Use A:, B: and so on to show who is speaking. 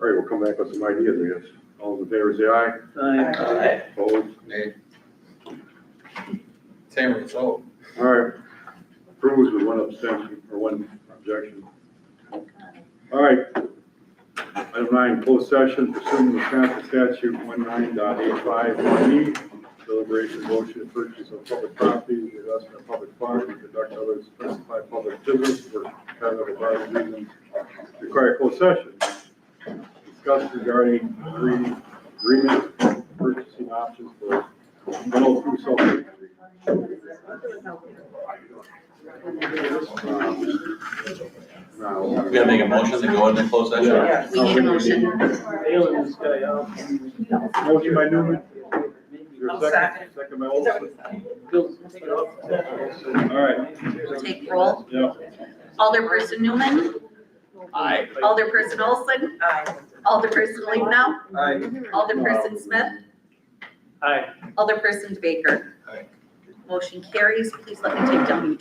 A: All right, we'll come back with some ideas, I guess. All those in favor say aye.
B: Aye.
C: Aye.
A: Opposed?
D: Nay. Same result.
A: All right. Approves with one abstention, or one objection. All right. Item nine, closed session pursuant to Wisconsin statute one nine dot eight five one E. Deliberation motion to purchase of public property, investment in public funds, and conduct other specified public business for competitive or other reasons. Require closed session. Discuss regarding agree- agreement, purchasing options for rental through self.
E: We gotta make a motion to go into closed session.
A: Yeah.
B: We need a motion.
C: Bailing this guy out.
A: Motion by Newman, your
C: I'll
A: second, second by Olson.
C: Bill, take it off.
A: All right,
B: We'll take roll.
A: yeah.
B: Alderperson Newman,
C: Aye.
B: Alderperson Olson,
C: Aye.
B: Alderperson Lehnow,
C: Aye.
B: Alderperson Smith,
C: Aye.
B: Alderperson Baker.
D: Aye.
B: Motion carries. Please let me take down.